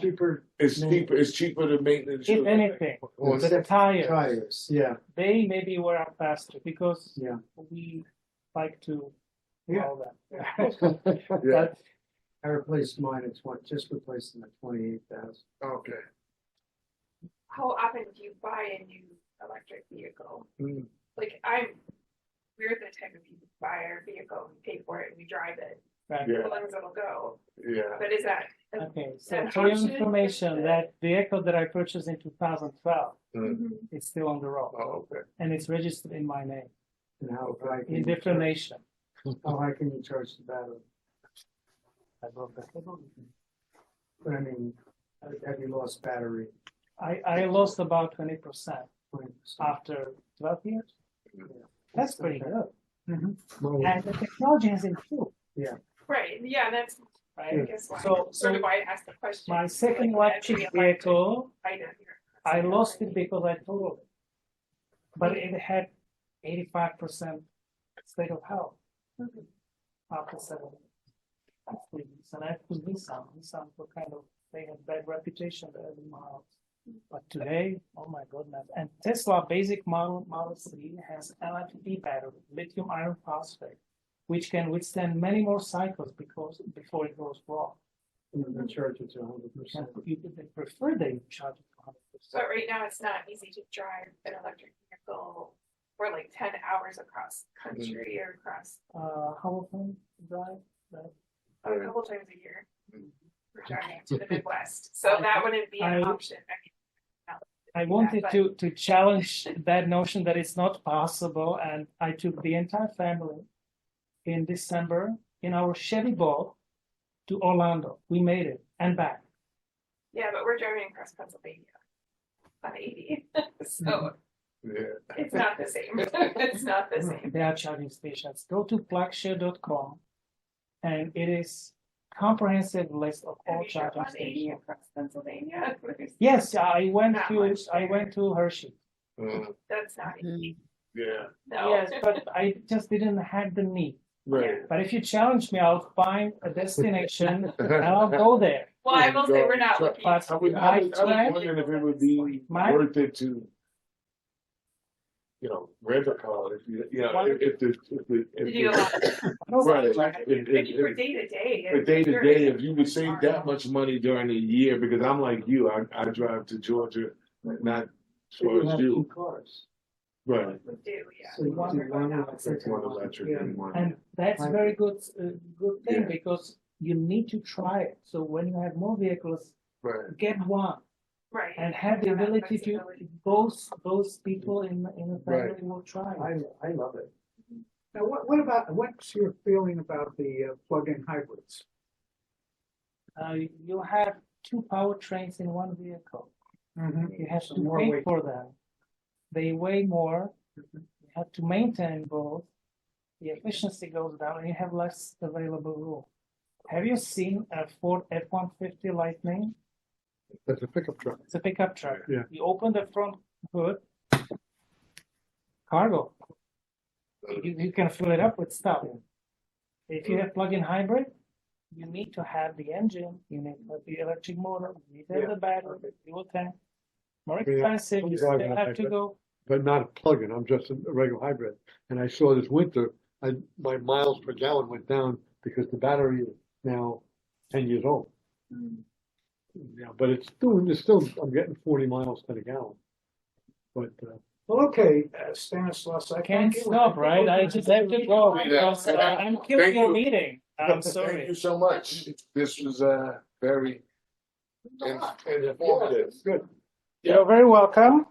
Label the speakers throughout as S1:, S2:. S1: cheaper,
S2: It's
S1: Yeah.
S2: cheaper, it's cheaper to maintenance.
S1: if anything,
S3: Or
S1: the tires,
S3: tires, yeah,
S1: they maybe wear out faster because
S3: Yeah.
S1: we like to
S3: Yeah.
S1: all that.
S2: Yeah,
S3: But I replaced mine at twenty, just replaced them at twenty-eight thousand.
S2: okay.
S4: how often do you buy a new electric vehicle?
S3: Mm.
S4: Like I'm, we're the type of people who buy our vehicle, we pay for it, and we drive it,
S1: Right.
S2: Yeah,
S4: as long as it'll go.
S2: yeah.
S4: But is that
S1: Okay, so
S4: Yeah,
S1: for your
S4: option.
S1: information, that vehicle that I purchased in two thousand twelve,
S2: Mm.
S1: it's still on the road
S2: Oh, okay.
S1: and it's registered in my name,
S3: And how high can
S1: in
S3: you
S1: different
S3: charge,
S1: nation.
S3: how high can you charge the battery?
S1: I love that.
S3: But I mean, have you lost battery?
S1: I, I lost about twenty percent
S3: 20%?
S1: after twelve years. Ah, That's pretty
S3: Okay.
S1: good.
S3: Mm-hmm. Well,
S1: And the technology has improved,
S4: right? Yeah, that's I
S1: right?
S4: guess why.
S1: So-
S4: sort of
S1: so
S4: why I asked the question.
S1: My second
S4: Like, as
S1: electric
S4: the electric
S1: vehicle
S4: item here.
S1: I lost it because I totaled it. But it had eighty-five percent state of health after seven years. And I could be some, some were kind of, they had bad reputation, the early models. But today, oh my goodness, and Tesla basic model, Model 3 has LFP battery, lithium iron phosphate, which can withstand many more cycles because, before it goes wrong.
S3: You can charge it to hundred
S1: And
S3: percent.
S1: you could prefer they charge it hundred percent.
S4: But right now, it's not easy to drive an electric vehicle for like ten hours across country or across
S1: uh, how often drive?
S4: a
S2: Right.
S4: couple times a year. We're driving to the Midwest, so that wouldn't be an
S1: I-
S4: option. I mean,
S1: I wanted
S4: but-
S1: to, to challenge that notion that it's not possible, and I took the entire family in December in our Chevy Bolt to Orlando. We made it and back.
S4: Yeah, but we're driving across Pennsylvania on eighty, so
S2: Yeah.
S4: it's not the same. It's not the same.
S1: There are charging stations. Go to plugshare.com, and it is comprehensive list of
S4: Have
S1: Mm-hmm. all
S4: you driven
S1: charging
S4: on eighty
S1: stations.
S4: across Pennsylvania?
S1: Yes, I went
S4: Not
S1: to
S4: much
S1: I
S4: there.
S1: went to Hershey.
S2: Mm.
S4: That's not easy,
S2: Yeah,
S4: no.
S1: Mm-hmm. Yes, but I just didn't have the need.
S2: right.
S1: But if you challenge me, I'll find a destination and I'll go there.
S4: Well, I will say we're not
S2: So-
S4: looking.
S1: But
S2: I would, I was, I
S1: My-
S2: was wondering if it would be
S1: my-
S2: worth it to, you know, rent a car if you, you know, if, if the, if the,
S4: To do a
S2: if
S4: lot of-
S2: the, right.
S4: I
S2: if- if-
S4: think for
S2: if-
S4: day to day.
S2: But
S4: it's
S2: day to
S4: very-
S2: day, if you would save that much money during the year, because I'm like you, I, I drive to Georgia, not
S3: You
S2: towards
S3: have
S2: you.
S3: two cars.
S2: Right.
S4: We do, yeah.
S3: So you
S1: One
S3: do one
S4: out.
S3: electric
S2: It's one
S3: and one-
S2: electric
S3: yeah.
S2: and one.
S1: And that's
S3: Right.
S1: very good, uh, good thing
S2: Yeah.
S1: because you need to try it. So when you have more vehicles,
S2: Right.
S1: get one
S4: Right.
S1: and have the
S4: Yeah, that
S1: ability to
S4: flexibility.
S1: both both people in in a family
S2: Right.
S1: will try. it.
S3: I, I love it.
S5: Now, what, what about, what's your feeling about the uh, plug-in hybrids?
S1: Uh, you have two powertrains in one vehicle. You have
S5: So
S1: to
S5: more
S1: pay
S5: weight.
S1: for them. They weigh more. You have to maintain both. The efficiency goes down, and you have less available room. Have you seen a Ford F one fifty Lightning?
S3: That's a pickup truck.
S1: It's a pickup truck.
S3: Yeah.
S1: You open the front hood, cargo. You, you can fill it up with stuff. If you have plug-in hybrid, you need to have the engine, you need to have the electric motor, you need to have the battery, the fuel tank. More
S6: Yeah.
S1: expensive, you still
S6: Exactly.
S1: have to go.
S6: but not a plug-in. I'm just a regular hybrid. And I saw this winter, I, my miles per gallon went down because the battery is now ten years old. Yeah, but it's doing, it's still, I'm getting forty miles to the gallon. But, uh,
S5: Well, okay, uh, Stanislaus, I
S1: Can't
S5: think it was-
S1: stop, right? I just have to go.
S2: Yeah.
S1: because, uh, I'm killing
S2: Thank
S1: your
S2: you.
S1: meeting. I'm
S2: Thank
S1: sorry.
S2: you so much. This was, uh, very in- informative.
S6: good.
S1: You're very welcome.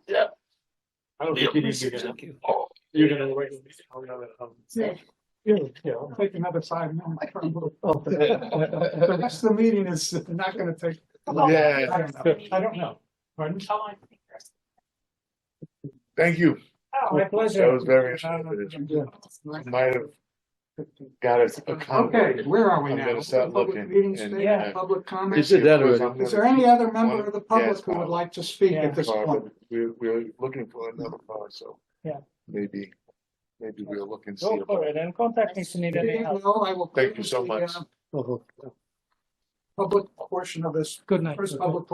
S6: I don't think you need to get up.
S2: Oh,
S6: You're gonna wait. I'll, I'll- Yeah, yeah.
S5: I'll Take another five minutes. from the-
S6: I'll-
S5: The rest of the meeting is not gonna take.
S2: Yeah,
S5: I don't know. I don't know. Pardon?
S4: How long do you think the rest-
S2: thank you.
S4: Oh,
S1: My
S2: That
S1: pleasure.
S2: was very informative. Might have got us a comment.
S5: Okay, where are we
S2: I'm
S5: now?
S2: gonna start
S5: Public
S2: looking
S5: Meeting
S2: and-
S5: statement,
S1: Yeah.
S5: public comment.
S6: Is it that already?
S5: Is there any other member of the public who would like to speak
S1: Yeah.
S5: at this point?
S2: We're, we're looking for another car, so.
S1: Yeah.
S2: Maybe, maybe we'll look and see.
S1: Go
S2: about-
S1: for it and contact me if you need any help.
S5: Well, I will
S6: Oh,
S2: Thank you so much.
S5: uh,
S6: I'll-
S5: public portion of this,
S1: Good night.
S5: first public